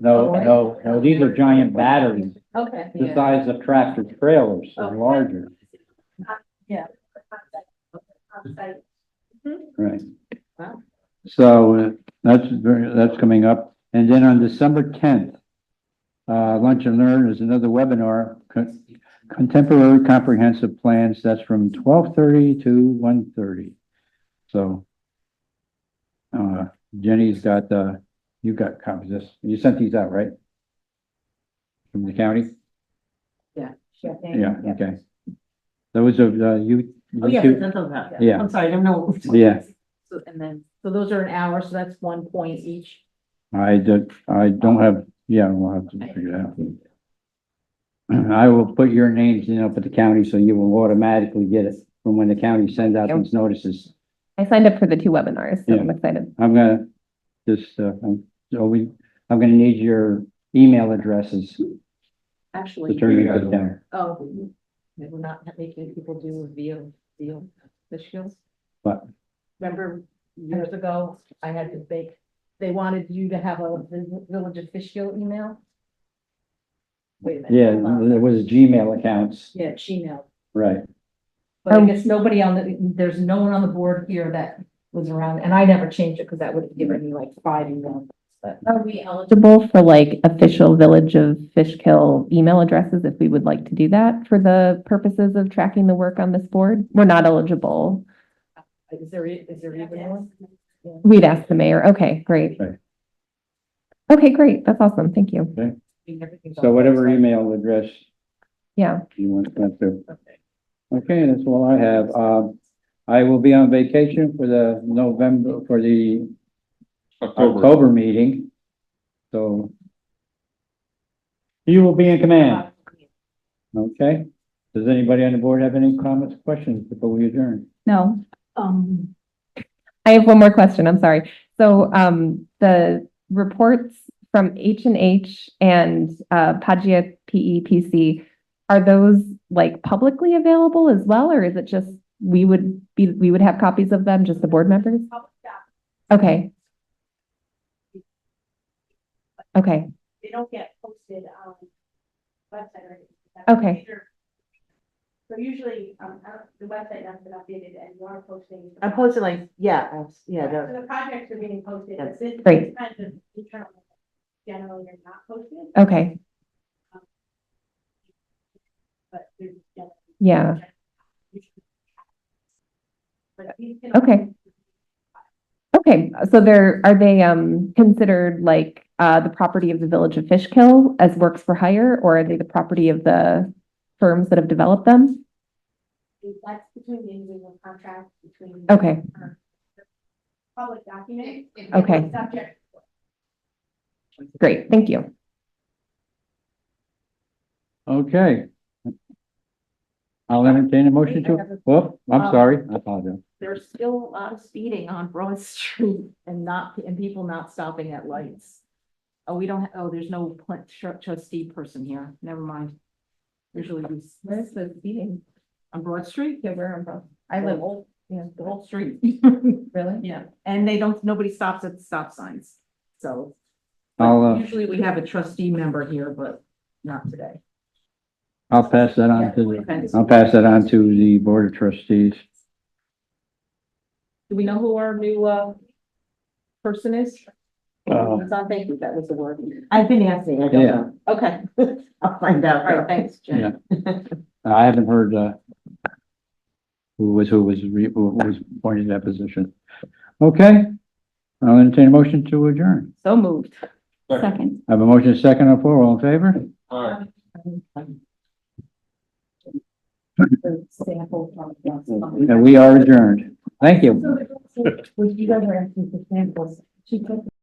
No, no, no, these are giant batteries, Okay, the Oh, yeah. Oh, size of tractor trailers or Okay. larger, right? Wow. So uh, that's very, that's coming up. And then on December tenth, uh, Lunch and Learn is another webinar, Con- Contemporary Comprehensive Plans, that's from twelve thirty to one thirty. So uh, Jenny's got, uh, you got copies of this. You sent these out, right? From the county? Yeah, okay. Those are, uh, you, Oh, yeah, you two, that's about it. Yeah. I'm sorry, I don't know. yeah, So- And then, so those are an hour, so that's one point each. I did, I don't have, yeah, we'll have to figure it out. I will put your names in up at the county, so you will automatically get it from when the county sends out these notices. I signed up for the two webinars, so I'm excited. I'm gonna, just, uh, I'm, so we, I'm gonna need your email addresses to Actually, turn into the county. oh, they we're not making people do a veal, veal officials. What? Remember years ago, I had to bake, they wanted you to have a vi- village official email? Wait a minute. Yeah, hold on. there was Gmail accounts, Yeah, Gmail. right, But I Um, guess nobody on the, there's no one on the board here that was around, and I never changed it because that would have given me like five emails. But Are we eligible? Eligible for like official Village of Fishkill email addresses if we would like to do that for the purposes of tracking the work on this board. We're not eligible. is there, e- is there even one? We'd ask the mayor. Okay, great. Right. Okay, great. That's awesome. Thank you. Everything's on so the whatever website. email address Yeah. you want that to. Okay, that's all I have. Um, I will be on vacation for the November, for the October meeting. So you will be in command, okay? Does anybody on the board have any comments, questions before we adjourn? No, Um, I have one more question, I'm sorry. So um, the reports from H and H and uh, Pagia PEPC, are those like publicly available as well, or is it just we would be, we would have copies of them, just the board members? Okay. Okay, they don't get posted on website or anything. That's Okay. either- So usually, um, I don't- the website hasn't been updated and you are posting. I posted like, yeah, I was- yeah, So the- the projects are being posted, Yes. but this Great. is kind of internal. Generally, you're not posted, okay, but there's. yeah, But these can. Okay. okay. So they're, are they um considered like uh the property of the Village of Fishkill as works for hire, or are they the property of the firms that have developed them? That's between the individual contract, between. Okay, Public document. and Okay. Subject. great, thank you. Okay. I'll entertain a motion to, well, I'm sorry, I apologize. there's still a lot of speeding on Broad Street and not, and people not stopping at lights. Oh, we don't, ha- oh, there's no pla- tr- trustee person here, never mind. Usually we. Where's the speeding? On Broad Street? Yeah, where on Broad. I live, yeah, the whole street. Really? Yeah, and they don't, nobody stops at the stop signs, so. I'll, uh, Usually we have a trustee member here, but not today. I'll pass that on to, the- I'll pass that on to the Board of Trustees. Do we know who our new, uh, person is? Uh, Don, thank you, that was the word. I've been asking, I don't Yeah. know. Okay, I'll find out. all right, thanks, Jen. Yeah. I haven't heard, uh, who was, who was, re- who was appointed to that position. Okay, I'll entertain a motion to adjourn. So moved. Second. I have a motion and a second on the floor, all in favor? Aye. Sample from. And we are adjourned. Thank you. Would you guys are asking for samples? She took